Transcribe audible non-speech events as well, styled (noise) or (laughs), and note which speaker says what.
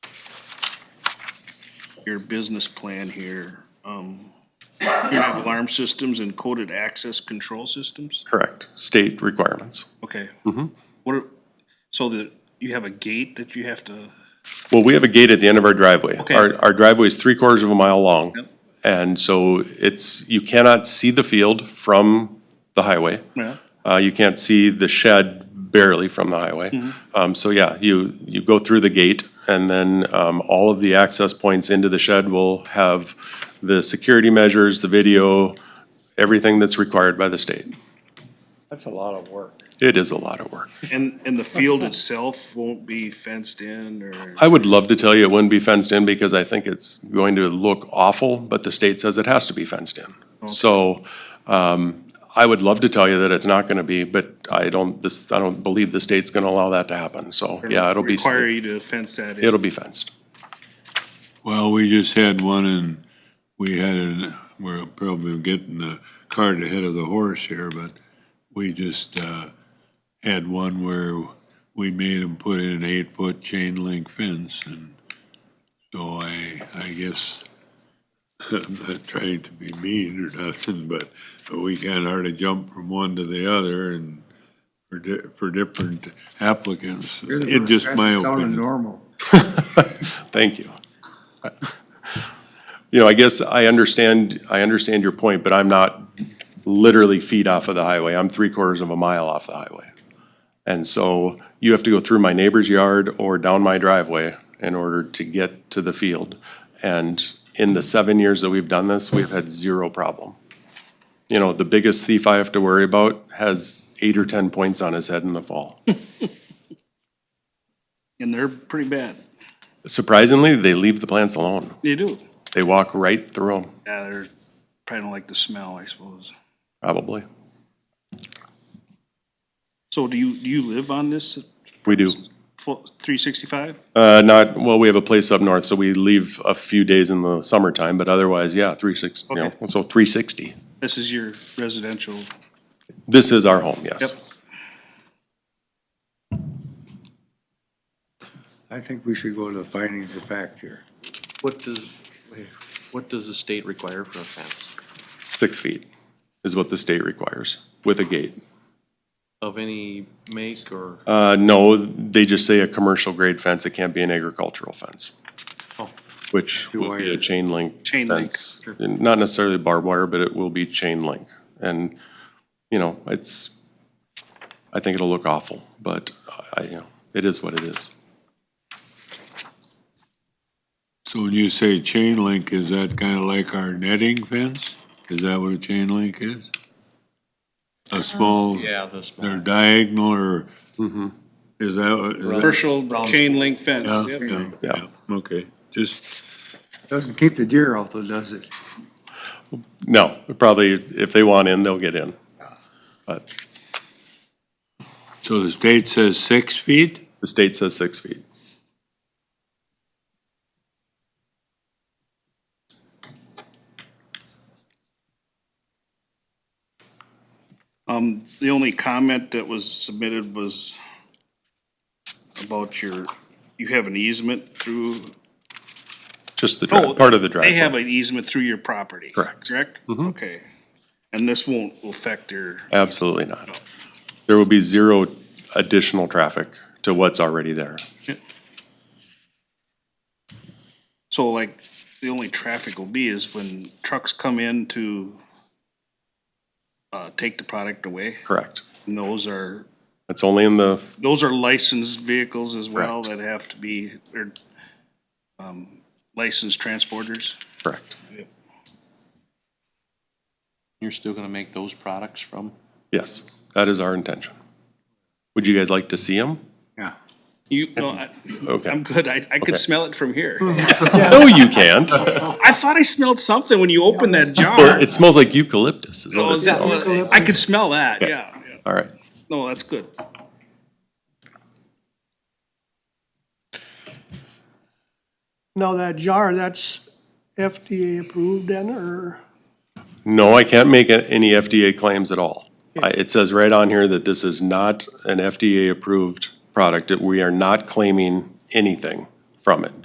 Speaker 1: your business plan here, um, you have alarm systems and coded access control systems?
Speaker 2: Correct, state requirements.
Speaker 1: Okay.
Speaker 2: Mm-hmm.
Speaker 1: What are, so that you have a gate that you have to,
Speaker 2: Well, we have a gate at the end of our driveway.
Speaker 1: Okay.
Speaker 2: Our, our driveway is three quarters of a mile long.
Speaker 1: Yep.
Speaker 2: And so it's, you cannot see the field from the highway.
Speaker 1: yeah,
Speaker 2: Uh, you can't see the shed barely from the highway.
Speaker 1: Mm-hmm.
Speaker 2: Um, so yeah, you, you go through the gate and then, um, all of the access points into the shed will have the security measures, the video, everything that's required by the state.
Speaker 3: That's a lot of work.
Speaker 2: It is a lot of work.
Speaker 1: and, and the
Speaker 2: (laughs)
Speaker 1: field itself won't be fenced in or?
Speaker 2: I would love to tell you it wouldn't be fenced in because I think it's going to look awful, but the state says it has to be fenced in. So, um, I would love to tell you that it's not gonna be, but I don't, this, I don't believe the state's gonna allow that to happen, so, yeah, it'll be.
Speaker 1: Require you to fence that in?
Speaker 2: It'll be fenced.
Speaker 4: Well, we just had one and we had, an- we're probably getting the cart ahead of the horse here, but we just uh, had one where we made them put in an eight-foot chain link fence and so I, I guess, (laughs) I'm not trying to be mean or nothing, but we kind of hardly jump from one to the other and for di- for different applicants. It just my
Speaker 3: Sounded
Speaker 4: opinion.
Speaker 3: normal.
Speaker 2: Thank you. (laughs) You know, I guess I understand, I understand your point, but I'm not literally feet off of the highway. I'm three quarters of a mile off the highway. And so you have to go through my neighbor's yard or down my driveway in order to get to the field. And in the seven years that we've done this, we've had zero problem. You know, the biggest thief I have to worry about has eight or 10 points on his head in the fall. (laughs)
Speaker 1: And they're pretty bad.
Speaker 2: Surprisingly, they leave the plants alone.
Speaker 1: They do.
Speaker 2: They walk right through them.
Speaker 1: Yeah, they're probably don't like the smell, I suppose.
Speaker 2: Probably.
Speaker 1: So do you, do you live on this
Speaker 2: We do.
Speaker 1: three sixty-five?
Speaker 2: Uh, not, well, we have a place up north, so we leave a few days in the summertime, but otherwise, yeah, three six, you know,
Speaker 1: Okay.
Speaker 2: so three sixty.
Speaker 1: This is your residential,
Speaker 2: This is our home,
Speaker 1: yep.
Speaker 2: yes.
Speaker 3: I think we should go to the findings of fact here.
Speaker 5: What does, what does the state require for a fence?
Speaker 2: Six feet is what the state requires with a gate.
Speaker 5: Of any make or,
Speaker 2: Uh, no, they just say a commercial grade fence. It can't be an agricultural fence.
Speaker 5: Oh.
Speaker 2: Which would be a
Speaker 3: Wire.
Speaker 2: chain link.
Speaker 1: Chain link,
Speaker 2: fence. And Not necessarily barbed wire, but it will be chain link. And, you know, it's, I think it'll look awful, but I, you know, it is what it is.
Speaker 4: So when you say chain link, is that kind of like our netting fence? Is that what a chain link is? A small,
Speaker 5: yeah, this
Speaker 4: they're
Speaker 5: one?
Speaker 4: diagonal or, is that? what- is that-
Speaker 1: commercial chain link fence,
Speaker 4: Yeah,
Speaker 1: yep.
Speaker 4: yeah,
Speaker 2: Yeah.
Speaker 4: yeah. Okay, just,
Speaker 3: Doesn't keep the deer out though, does it?
Speaker 2: No, probably if they want in, they'll get in. But
Speaker 4: so the state says six feet?
Speaker 2: the state says six feet.
Speaker 1: Um, the only comment that was submitted was about your, you have an easement through.
Speaker 2: Just the, dri- part of the driveway.
Speaker 1: They have an easement through your property.
Speaker 2: Correct. Mm-hmm.
Speaker 1: Correct? Okay. And this won't affect their,
Speaker 2: Absolutely not. There will be zero additional traffic to what's already there.
Speaker 1: so like, the only traffic will be is when trucks come in to uh, take the product away,
Speaker 2: Correct.
Speaker 1: and those are
Speaker 2: It's only in the,
Speaker 1: those are licensed vehicles as well that have to be, they're, um, licensed transporters.
Speaker 2: correct.
Speaker 5: You're still gonna make those products from?
Speaker 2: Yes, that is our intention. Would you guys like to see them?
Speaker 3: Yeah.
Speaker 1: You, no, I, I'm
Speaker 2: Okay.
Speaker 1: good. I, I could
Speaker 2: Okay.
Speaker 1: smell it from here.
Speaker 2: No, you can't.
Speaker 1: I thought I smelled something when you opened that jar.
Speaker 2: It smells like eucalyptus is
Speaker 1: Oh,
Speaker 2: what it
Speaker 1: is that,
Speaker 2: smells.
Speaker 1: I could smell that, yeah. yeah.
Speaker 2: All right.
Speaker 1: No, that's good.
Speaker 6: Now, that jar, that's FDA approved then, or,
Speaker 2: No, I can't make a- any FDA claims at all. I- It says right on here that this is not an FDA-approved product, that we are not claiming anything from it.